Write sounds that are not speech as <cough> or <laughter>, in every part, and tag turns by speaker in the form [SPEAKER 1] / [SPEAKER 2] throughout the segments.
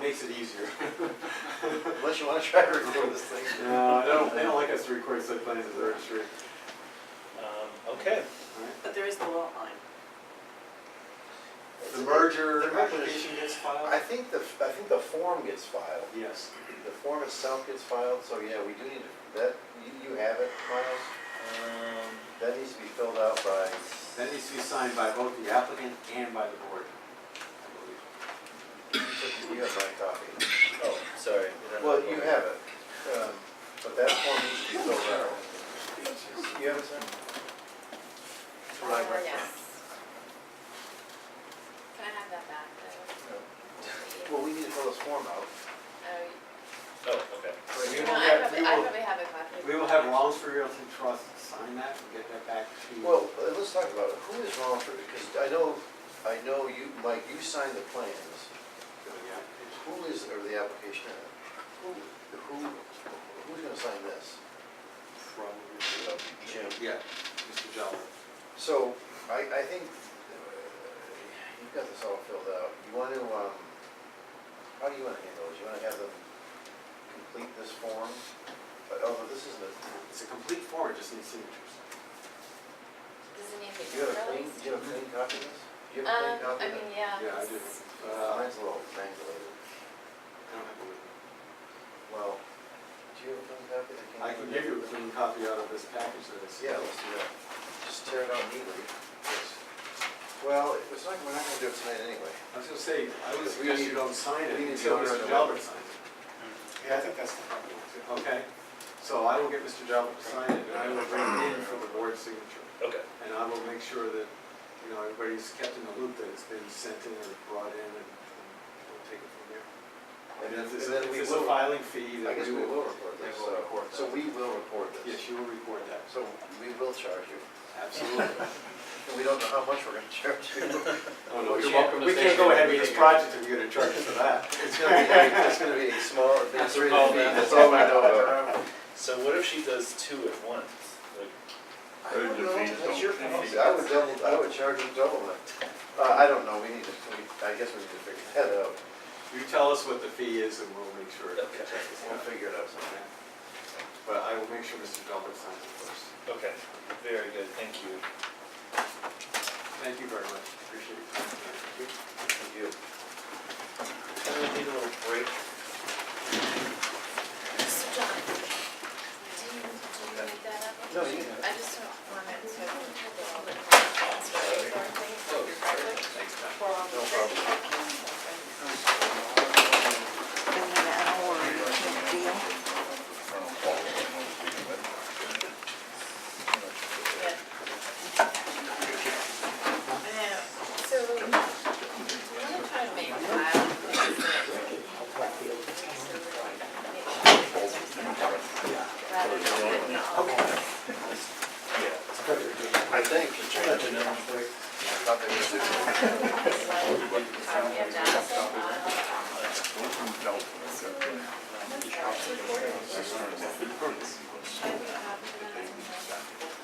[SPEAKER 1] makes it
[SPEAKER 2] <laughs>
[SPEAKER 1] easier. <laughs>
[SPEAKER 2] Unless you wanna try to record this thing.
[SPEAKER 1] No, they don't, they don't like us to record site plans at the registry.
[SPEAKER 3] Um, Okay,
[SPEAKER 4] But there is the lot line.
[SPEAKER 1] The merger
[SPEAKER 2] The merger is-
[SPEAKER 1] application gets
[SPEAKER 2] I
[SPEAKER 1] filed?
[SPEAKER 2] think the, I think the form gets filed.
[SPEAKER 1] Yes.
[SPEAKER 2] The form itself gets filed, so yeah, we do need to, that, you, you have it, Miles?
[SPEAKER 3] um,
[SPEAKER 2] That needs to be filled out by,
[SPEAKER 1] That needs to be signed by both the applicant and by the board. I believe.
[SPEAKER 2] you have my E copy.
[SPEAKER 3] oh, sorry. we don't
[SPEAKER 2] Well,
[SPEAKER 3] have
[SPEAKER 2] you
[SPEAKER 3] one.
[SPEAKER 2] have it, um, but that form needs to be filled out. You have it, sir?
[SPEAKER 5] Uh, yes. Can I have that back though?
[SPEAKER 2] Well, we need to fill this form out.
[SPEAKER 5] Oh,
[SPEAKER 3] Oh, okay.
[SPEAKER 1] We
[SPEAKER 5] you-
[SPEAKER 1] will
[SPEAKER 5] No, I
[SPEAKER 1] have- we
[SPEAKER 5] probably, I
[SPEAKER 1] will-
[SPEAKER 5] probably have a copy.
[SPEAKER 1] We will have Rollinsford Realty Trust sign that and get that back to.
[SPEAKER 2] Well, uh, let's talk about it, who is wrong for, because I know, I know you, Mike, you signed the plans.
[SPEAKER 1] to the application.
[SPEAKER 2] Who is, or the application, who, who, who's gonna sign this?
[SPEAKER 1] Probably.
[SPEAKER 2] Jim?
[SPEAKER 1] Yeah, Mr. Jolly.
[SPEAKER 2] So, I, I think, uh, you've got this all filled out, you want to, um, how do you want to handle this? You want to have them complete this form? But, oh, but this isn't a,
[SPEAKER 1] It's a complete form, it just needs signatures.
[SPEAKER 5] Does it need to
[SPEAKER 2] do
[SPEAKER 5] be
[SPEAKER 2] you have a clean, do
[SPEAKER 5] released?
[SPEAKER 2] you have a clean copy of this? Do you
[SPEAKER 5] Um,
[SPEAKER 2] have a clean copy
[SPEAKER 5] I
[SPEAKER 2] of
[SPEAKER 5] mean,
[SPEAKER 2] it?
[SPEAKER 5] yeah.
[SPEAKER 1] Yeah, I do.
[SPEAKER 5] it's-
[SPEAKER 1] Uh, I
[SPEAKER 2] Mine's a little triangulated.
[SPEAKER 1] don't have it with me.
[SPEAKER 2] Well, do you have a clean copy that came?
[SPEAKER 1] I can give you a clean copy out of this package that is.
[SPEAKER 2] Yeah, let's do that. Just tear it out neatly. Well, it's not, we're not gonna do it tonight anyway.
[SPEAKER 1] I was gonna say, I would
[SPEAKER 2] Because we
[SPEAKER 1] suggest you
[SPEAKER 2] need-
[SPEAKER 1] don't sign it
[SPEAKER 2] we need
[SPEAKER 1] until
[SPEAKER 2] to
[SPEAKER 1] Mr.
[SPEAKER 2] order the-
[SPEAKER 1] Jalbert signs it. Yeah, I think that's the problem. Okay, so I will get Mr. Jalbert to sign it, and I will bring it in for the board signature.
[SPEAKER 3] Okay,
[SPEAKER 1] And I will make sure that, you know, everybody's kept in the loop that it's been sent in or brought in, and and we'll take it from there. And if there's, if there's a filing fee,
[SPEAKER 2] I
[SPEAKER 1] then
[SPEAKER 2] guess
[SPEAKER 1] we
[SPEAKER 2] we will
[SPEAKER 1] will.
[SPEAKER 2] record
[SPEAKER 1] they
[SPEAKER 2] this,
[SPEAKER 1] will
[SPEAKER 2] so,
[SPEAKER 1] record
[SPEAKER 2] so
[SPEAKER 1] that.
[SPEAKER 2] we will record this.
[SPEAKER 1] Yes, you will record that,
[SPEAKER 2] So we will charge you,
[SPEAKER 1] absolutely.
[SPEAKER 2] and we don't know how much we're gonna charge you.
[SPEAKER 1] <laughs> Oh,
[SPEAKER 2] Well,
[SPEAKER 1] no,
[SPEAKER 2] you're
[SPEAKER 1] We
[SPEAKER 2] welcome
[SPEAKER 1] can't-
[SPEAKER 2] to
[SPEAKER 1] we
[SPEAKER 2] say
[SPEAKER 1] can't go
[SPEAKER 2] that
[SPEAKER 1] ahead
[SPEAKER 2] we
[SPEAKER 1] with this
[SPEAKER 2] didn't-
[SPEAKER 1] project if you're gonna charge us for that.
[SPEAKER 2] It's gonna be,
[SPEAKER 1] <laughs>
[SPEAKER 2] like- it's gonna be a small administrative fee, that's all I know about.
[SPEAKER 3] so what if she does two at once? Like,
[SPEAKER 2] I don't know, that's your policy, I would double, I would charge you double that. Uh, I don't know, we need to, we- I guess we need to figure that out,
[SPEAKER 1] You tell us what the fee is, and we'll make sure.
[SPEAKER 3] Okay.
[SPEAKER 2] we'll figure it out somehow.
[SPEAKER 1] Okay. But I will make sure Mr. Delbert signs it first.
[SPEAKER 3] Okay, very good, thank you.
[SPEAKER 1] Thank you very much, appreciate it.
[SPEAKER 2] Thank you.
[SPEAKER 3] Can we take a little break?
[SPEAKER 5] So John, do you, do you make that up?
[SPEAKER 2] No, you can have it.
[SPEAKER 5] I just don't want it to.
[SPEAKER 1] Thanks, Tom.
[SPEAKER 2] No problem.
[SPEAKER 5] Yeah. I know, so, I'm gonna try to make a file. Rather than putting it all.
[SPEAKER 2] I think. Not that it's-
[SPEAKER 5] Um, we have Johnson, uh,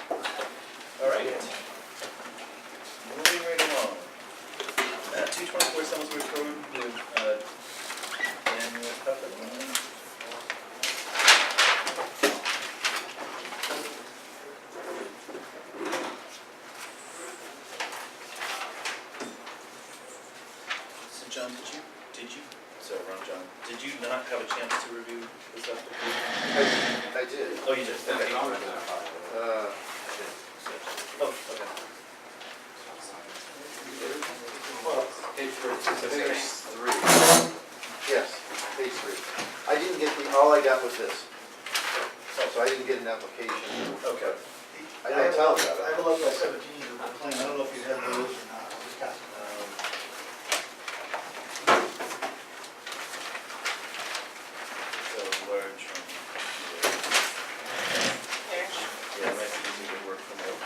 [SPEAKER 3] All right. Moving right along. Two twenty-four Summersworth Road, with, uh, Dan Pepper. So John, did you, did you, sorry, wrong John, did you not have a chance to review this application?
[SPEAKER 2] I I did.
[SPEAKER 3] Oh, you did, okay.
[SPEAKER 1] I'll run that file.
[SPEAKER 2] Uh,
[SPEAKER 3] Oh, okay.
[SPEAKER 1] Page three.
[SPEAKER 2] Page three. Yes, page three. I didn't get the, all I got was this. So I didn't get an application.
[SPEAKER 3] Okay.
[SPEAKER 2] I didn't tell them
[SPEAKER 6] I
[SPEAKER 2] that.
[SPEAKER 6] have a level seventeen year plan, I don't know if you have those or not, I just got them.
[SPEAKER 3] So large from
[SPEAKER 5] there.
[SPEAKER 3] here. Yeah, right, you need to work from there.
[SPEAKER 2] um,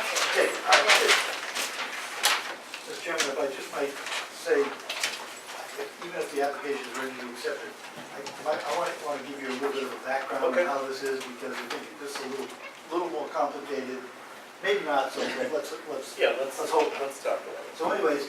[SPEAKER 5] Okay.
[SPEAKER 6] Okay, all right, good. Mr. Chairman, if I just might say, if- even if the application is ready to be accepted, I, I- I want, want to give you a little bit of a background on
[SPEAKER 3] Okay.
[SPEAKER 6] how this is, because I think this is a little, little more complicated, maybe not so, but let's, let's,
[SPEAKER 3] Yeah, let's,
[SPEAKER 6] let's hope.
[SPEAKER 3] let's talk about it.
[SPEAKER 6] So anyways,